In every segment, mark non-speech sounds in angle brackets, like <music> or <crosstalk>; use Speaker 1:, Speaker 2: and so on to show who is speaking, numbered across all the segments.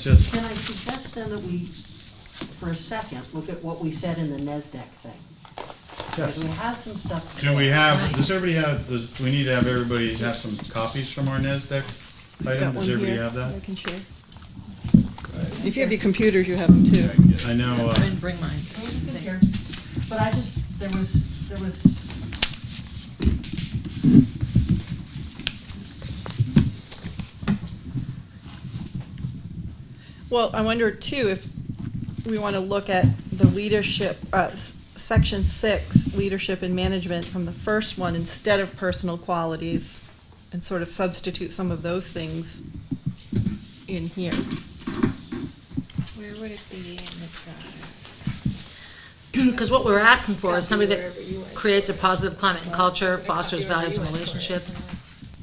Speaker 1: It's just,
Speaker 2: Can I suggest then that we, for a second, look at what we said in the NESDEC thing?
Speaker 1: yes.
Speaker 2: Because we have some stuff.
Speaker 1: Do we have, does everybody have, does, do we need to have everybody have some copies from our NASDAQ item?
Speaker 3: Got one
Speaker 1: Does everybody
Speaker 3: here
Speaker 1: have that?
Speaker 3: I can share. If you have your computers, you have them too.
Speaker 1: I know,
Speaker 4: I
Speaker 1: uh,
Speaker 4: didn't bring mine.
Speaker 2: there, But I just, there was, there was.
Speaker 3: Well, I wonder too if we want to look at the leadership, uh, s- section six, leadership and management from the first one instead of personal qualities and sort of substitute some of those things in here.
Speaker 5: Where would it be in the charter?
Speaker 4: Because what we're asking for is somebody that
Speaker 5: Copy wherever you are.
Speaker 4: creates a positive climate and culture,
Speaker 5: Copy
Speaker 4: fosters
Speaker 5: wherever
Speaker 4: values
Speaker 5: you
Speaker 4: and
Speaker 5: want for it.
Speaker 4: relationships,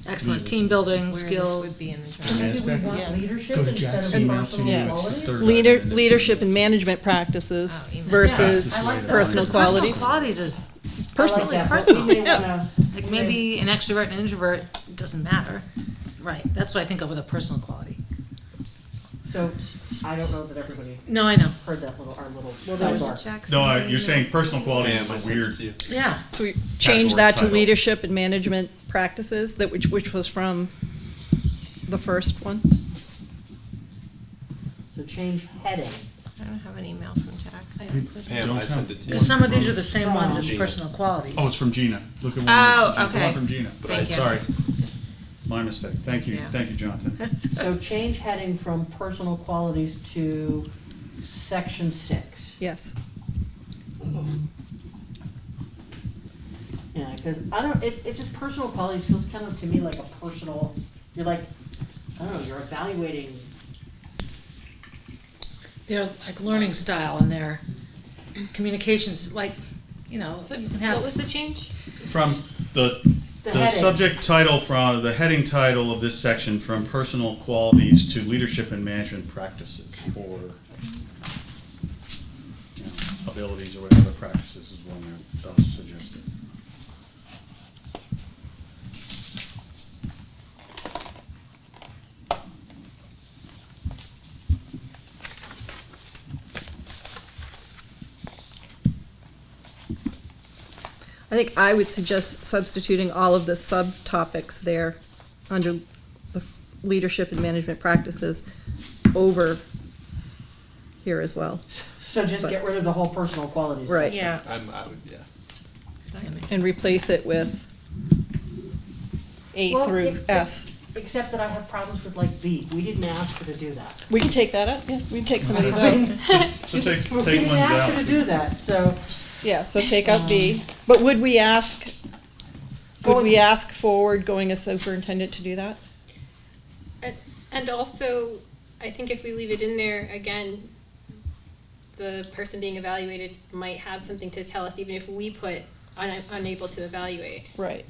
Speaker 4: excellent team building, skills.
Speaker 5: Where this would be in the charter.
Speaker 2: Maybe we
Speaker 4: Yeah.
Speaker 2: want leadership
Speaker 6: Go to
Speaker 2: instead
Speaker 6: Jack's
Speaker 2: of
Speaker 6: email to
Speaker 2: personal
Speaker 3: you.
Speaker 2: qualities?
Speaker 6: Third
Speaker 3: Leader,
Speaker 6: item.
Speaker 3: leadership and management practices
Speaker 5: Oh, you missed
Speaker 3: versus
Speaker 2: that. I like that.
Speaker 3: personal
Speaker 4: Because personal
Speaker 3: qualities.
Speaker 4: qualities is,
Speaker 3: Personal,
Speaker 2: I like that, but
Speaker 4: personal,
Speaker 2: we <laughs> may
Speaker 3: yeah.
Speaker 2: wanna-
Speaker 4: like, maybe an extrovert and introvert, doesn't matter. Right, that's what I think of with a personal quality.
Speaker 2: So, I don't know that everybody
Speaker 4: No, I know,
Speaker 2: heard that little, our little
Speaker 3: Well, there was-
Speaker 2: sidebar.
Speaker 1: no, uh, you're saying personal qualities is a weird,
Speaker 4: yeah.
Speaker 3: So we changed that to
Speaker 1: title.
Speaker 3: leadership and management practices, that which, which was from the first one.
Speaker 2: So change heading.
Speaker 5: I don't have an email from Jack.
Speaker 7: Pam,
Speaker 1: Don't
Speaker 7: I sent it to you.
Speaker 4: Because some of these are the same
Speaker 2: It's
Speaker 4: ones
Speaker 2: from
Speaker 4: as
Speaker 7: Gina.
Speaker 4: personal qualities.
Speaker 1: oh, it's from Gina. Look at one.
Speaker 5: Oh,
Speaker 1: from Gina. The
Speaker 5: okay.
Speaker 1: One from Gina.
Speaker 5: But I- Thank you.
Speaker 1: Sorry. My mistake. Thank you,
Speaker 5: Yeah.
Speaker 1: thank you, Jonathan.
Speaker 2: So change heading from personal qualities to section six.
Speaker 3: Yes.
Speaker 2: Yeah, because I don't. It, it just personal qualities feels kind of to me like a personal. You're like, I don't know. You're evaluating.
Speaker 4: They're like learning style and their communications, like, you know, you can
Speaker 5: What
Speaker 4: have,
Speaker 5: was the change?
Speaker 1: From the,
Speaker 2: The
Speaker 1: the
Speaker 2: heading.
Speaker 1: subject title from, the heading title of this section, from personal qualities to leadership and management practices or you know, abilities or whatever practices is one that was suggested.
Speaker 3: I think I would suggest substituting all of the subtopics there under the leadership and management practices over here as well,
Speaker 2: So just get rid of the whole personal qualities.
Speaker 3: Right.
Speaker 5: Yeah.
Speaker 7: I'm, I would, yeah.
Speaker 3: and replace it with A
Speaker 2: Well,
Speaker 3: through
Speaker 2: it-
Speaker 3: S.
Speaker 2: Except that I have problems with like B. We didn't ask her to do that.
Speaker 3: We can take that up, yeah, we can take some
Speaker 2: <laughs>
Speaker 3: of these
Speaker 2: I
Speaker 3: out.
Speaker 2: mean,
Speaker 1: So take,
Speaker 2: we
Speaker 1: take
Speaker 2: didn't
Speaker 1: ones
Speaker 2: ask her to
Speaker 1: out.
Speaker 2: do that. So
Speaker 3: Yeah, so take out B. But would we ask, would we ask forward going as superintendent to do that?
Speaker 8: And- And also, I think if we leave it in there, again, the person being evaluated might have something to tell us, even if we put un- unable to evaluate.
Speaker 3: Right,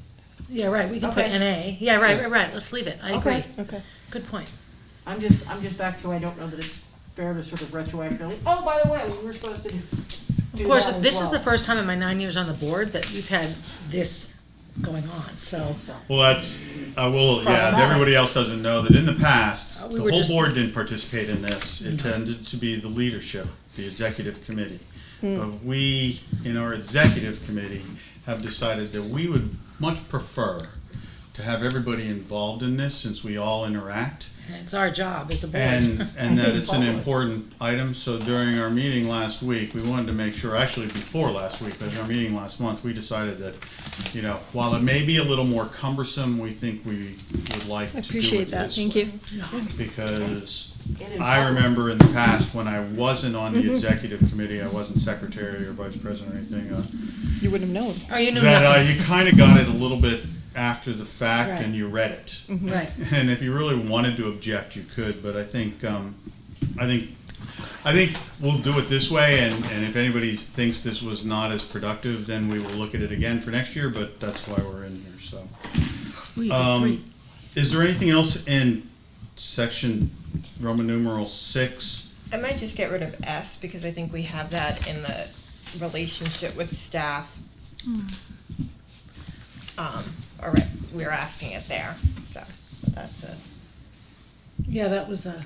Speaker 4: yeah, right, we can put
Speaker 2: Okay.
Speaker 4: NA, yeah, right, right, right, let's leave it, I agree,
Speaker 2: Okay.
Speaker 3: okay.
Speaker 4: good point.
Speaker 2: I'm just I'm just back to I don't know that it's fair to sort of retroactively. Oh, by the way, we were supposed to. do do
Speaker 4: Of course,
Speaker 2: that as
Speaker 4: this is the
Speaker 2: well."
Speaker 4: first time in my nine years on the board that we've had this going on, so.
Speaker 1: Well, that's, I will, yeah,
Speaker 4: Problematic.
Speaker 1: everybody else doesn't know that in the past,
Speaker 4: Uh, we
Speaker 1: the
Speaker 4: were
Speaker 1: whole
Speaker 4: just-
Speaker 1: board didn't participate in this. It tended to be the leadership, the executive committee.
Speaker 4: Hmm.
Speaker 1: But we, in our executive committee, have decided that we would much prefer to have everybody involved in this since we all interact.
Speaker 4: And it's our job as a board.
Speaker 1: And, and that
Speaker 3: <laughs>
Speaker 1: it's an important item, so during our meeting last week, we wanted to make sure, actually before last week, but in our meeting last month, we decided that, you know, while it may be a little more cumbersome, we think we would like
Speaker 3: I
Speaker 1: to do
Speaker 3: appreciate
Speaker 1: it
Speaker 3: that,
Speaker 1: this
Speaker 3: thank
Speaker 1: way.
Speaker 3: you.
Speaker 1: Because
Speaker 2: Get in
Speaker 1: I
Speaker 2: public.
Speaker 1: remember in the past, when I wasn't on
Speaker 3: Mm-hmm.
Speaker 1: the executive committee, I wasn't secretary or vice president or anything, uh,
Speaker 3: You wouldn't have known.
Speaker 4: Oh, you knew
Speaker 1: that uh,
Speaker 4: nothing,
Speaker 1: you kind of got it a little bit after the fact
Speaker 3: Right.
Speaker 1: and you read it.
Speaker 4: right.
Speaker 1: And if you really wanted to object, you could, but I think, um, I think, I think we'll do it this way, and, and if anybody thinks this was not as productive, then we will look at it again for next year, but that's why we're in here, so.
Speaker 4: We did three.
Speaker 1: Um, is there anything else in section Roman numeral six?
Speaker 5: I might just get rid of S because I think we have that in the relationship with staff. Um, all right, we're asking it there, so that's it.
Speaker 4: Yeah, that was a